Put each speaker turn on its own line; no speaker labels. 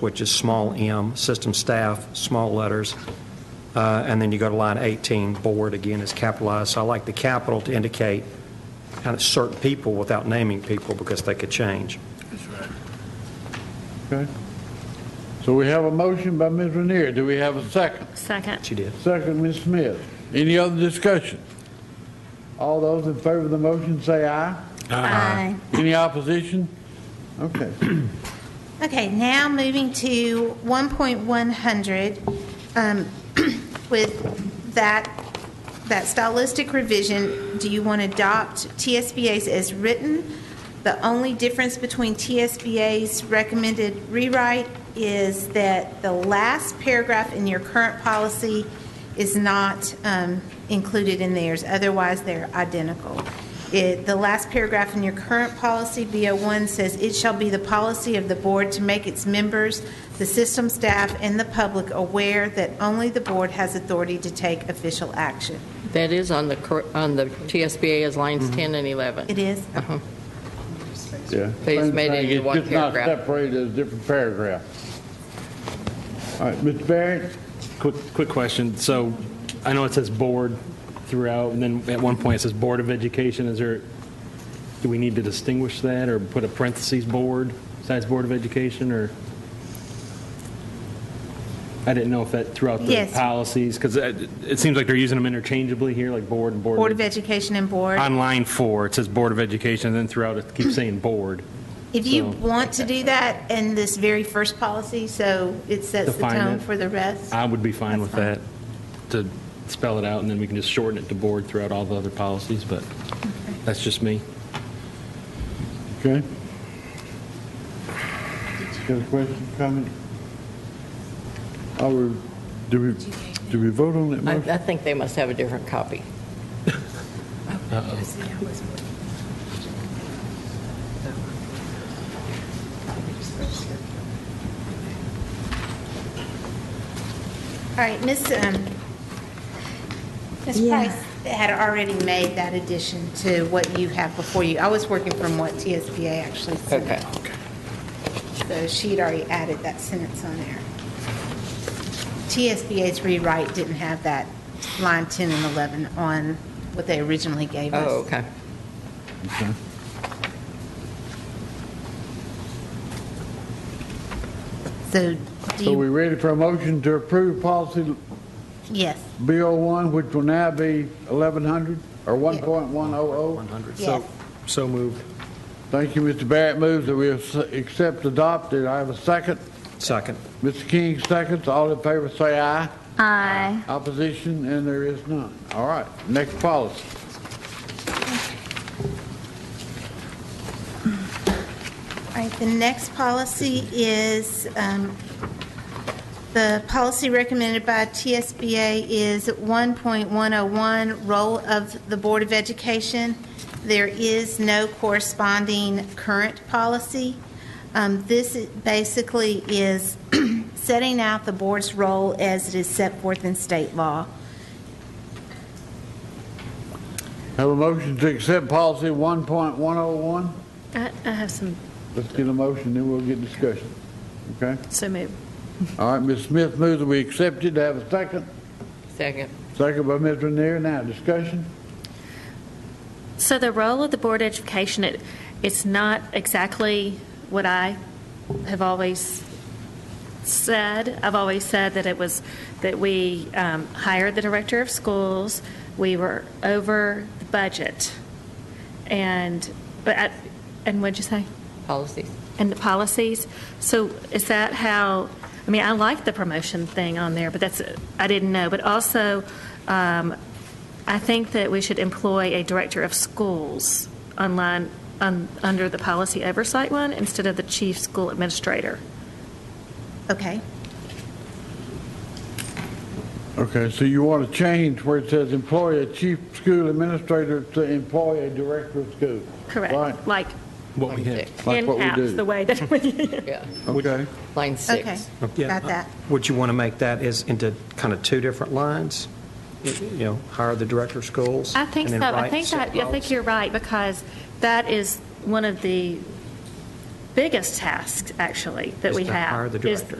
which is small m, system staff, small letters. Uh, And then you go to line 18, board, again, is capitalized. So I like the capital to indicate kind of certain people without naming people because they could change.
Okay. So we have a motion by Ms. Renier. Do we have a second?
Second.
She did.
Second, Ms. Smith. Any other discussion? All those in favor of the motion say aye.
Aye.
Any opposition? Okay.
Uh, Okay, now moving to 1.100, um, with that, that stylistic revision, do you want to adopt TSBA's as written? The only difference between TSBA's recommended rewrite is that the last paragraph in your current policy is not um, included in theirs, otherwise they're identical. It, the last paragraph in your current policy, B01, says, "It shall be the policy of the board to make its members, the system staff, and the public aware that only the board has authority to take official action."
That is on the, cor- on the TSBA as lines 10 and 11.
It is?
Yeah.
They just made
Same
it
thing,
into one
It's just not
paragraph.
separated as different paragraph. All right, Mr. Barrett?
Quick, quick question. So I know it says board throughout, and then at one point it says Board of Education. Is there, do we need to distinguish that or put a parentheses board besides Board of Education or? I didn't know if that throughout the
Yes.
policies, because it it seems like they're using them interchangeably here, like board and board.
Board of Education and board.
On line four, it says Board of Education, and then throughout it keeps saying board.
If you
So-
want to do that in this very first policy, so it sets the
Define
tone
it.
for the rest.
I would be fine
That's
with that, to spell it out, and then we can just shorten it to board throughout all the other policies, but that's just me.
Okay. Got a question, comment? Are we, do we, do we vote on that
I,
Mm-hmm.
motion?
I think they must have a different copy.
All right, Ms., um, Ms. Price had already made that addition to what you have before you. I was working from what TSBA actually sent.
Okay.
So she had already added that sentence on there. TSBA's rewrite didn't have that line 10 and 11 on what they originally gave us.
Oh, okay.
Okay.
So do
So we
you,
ready for a motion to approve policy
yes,
B01, which will now be 1100 or 1.100?
100.
yes.
So moved.
Thank you, Mr. Barrett. Moves that we ac- accept adopted. I have a second.
Second.
Mr. King seconds. All in favor say aye.
Aye.
Opposition, and there is none. All right, next policy.
All right, the next policy is, um, the policy recommended by TSBA is 1.101, Role of the Board of Education. There is no corresponding current policy. Um, This i- basically is setting out the board's role as it is set forth in state law.
Have a motion to accept policy 1.101?
I, I have some,
Let's get a motion, then we'll get discussion. Okay?
so move.
All right, Ms. Smith moves that we accept it. Have a second.
Second.
Second by Mr. Renier. Now, discussion?
So the role of the Board of Education, it, it's not exactly what I have always said. I've always said that it was, that we um, hired the director of schools, we were over the budget. And, but, I- and what'd you say?
Policies.
And the policies. So is that how, I mean, I like the promotion thing on there, but that's, I didn't know. But also, um, I think that we should employ a director of schools online, un- under the policy oversight one, instead of the chief school administrator.
Okay?
Okay, so you want to change where it says employ a chief school administrator to employ a director of school? Right,
Correct. Like
What we have.
like what we
in-house, the
do.
way that we,
Yeah,
Okay,
line
Okay.
six.
Yeah.
Got that.
Would you want to make that as into kind of two different lines? You know, hire the director of schools?
I think
and
so.
then
I
write
think
set
that, I think
policy?
you're right, because that is one of the
biggest task, actually, that
Is
we
to
have.
hire the
is
director.